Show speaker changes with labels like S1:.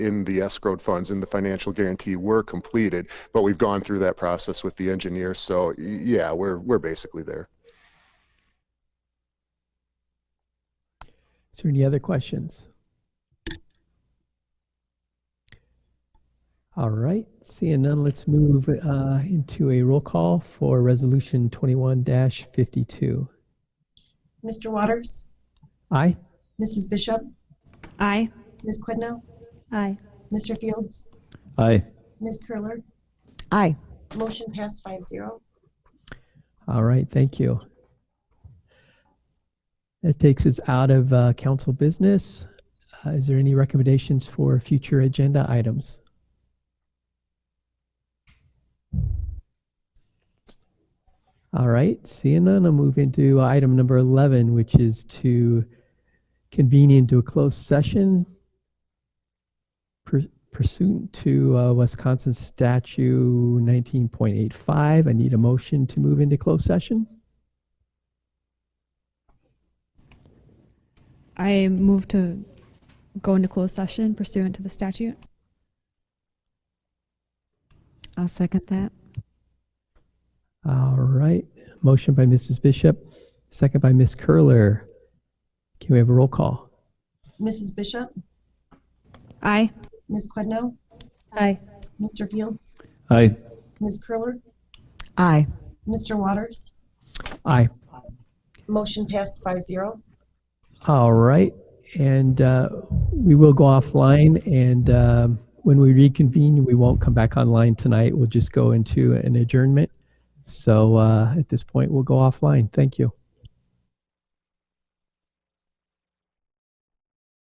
S1: in the escrowed funds in the financial guarantee were completed, but we've gone through that process with the engineer. So y- yeah, we're we're basically there.
S2: Is there any other questions? All right, seeing none, let's move uh, into a roll call for Resolution 21-52.
S3: Mr. Waters?
S2: Aye?
S3: Mrs. Bishop?
S4: Aye.
S3: Ms. Quidno?
S4: Aye.
S3: Mr. Fields?
S5: Aye.
S3: Ms. Curler?
S4: Aye.
S3: Motion passed five zero.
S2: All right, thank you. That takes us out of uh, council business. Uh, Is there any recommendations for future agenda items? All right, seeing none, I'll move into item number 11, which is to convene into a closed session pur- pursuant to uh, Wisconsin Statute 19.85. I need a motion to move into closed session.
S4: I move to go into closed session pursuant to the statute. I'll second that.
S2: All right. Motion by Mrs. Bishop, second by Ms. Curler. Can we have a roll call?
S3: Mrs. Bishop?
S4: Aye.
S3: Ms. Quidno?
S4: Aye.
S3: Mr. Fields?
S5: Aye.
S3: Ms. Curler?
S4: Aye.
S3: Mr. Waters?
S2: Aye.
S3: Motion passed five zero.
S2: All right. And uh, we will go offline. And um, when we reconvene, we won't come back online tonight. We'll just go into an adjournment. So uh, at this point, we'll go offline. Thank you.